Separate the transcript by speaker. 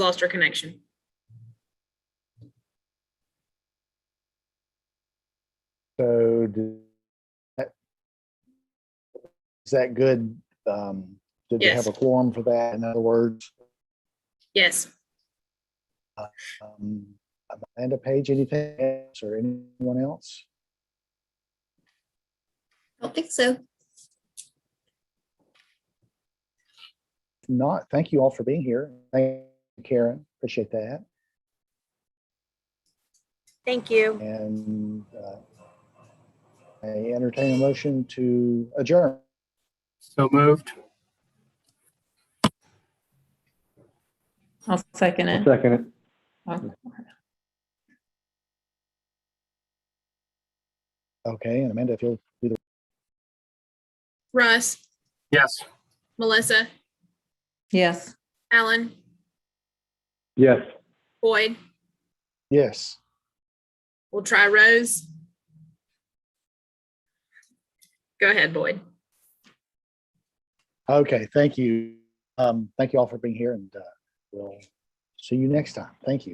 Speaker 1: lost her connection.
Speaker 2: So do- that- is that good? Um, Did we have
Speaker 1: Yes.
Speaker 2: a quorum for that? In other words,
Speaker 1: Yes,
Speaker 2: um, Amanda Page, anything else or anyone else?
Speaker 3: I don't think so.
Speaker 2: If Not, thank you all for being here. Thank you, Karen, appreciate that.
Speaker 4: Thank you.
Speaker 2: And uh, I entertain a motion to adjourn.
Speaker 5: So moved.
Speaker 6: I'll second it.
Speaker 7: Second it.
Speaker 2: Okay, and Amanda, if you'll do the,
Speaker 1: Russ,
Speaker 5: Yes.
Speaker 1: Melissa,
Speaker 6: Yes.
Speaker 1: Alan,
Speaker 7: Yes.
Speaker 1: Boyd,
Speaker 2: yes.
Speaker 1: we'll try Rose. Go ahead, Boyd.
Speaker 2: Okay, thank you. Um, Thank you all for being here and uh, we'll see you next time. Thank you.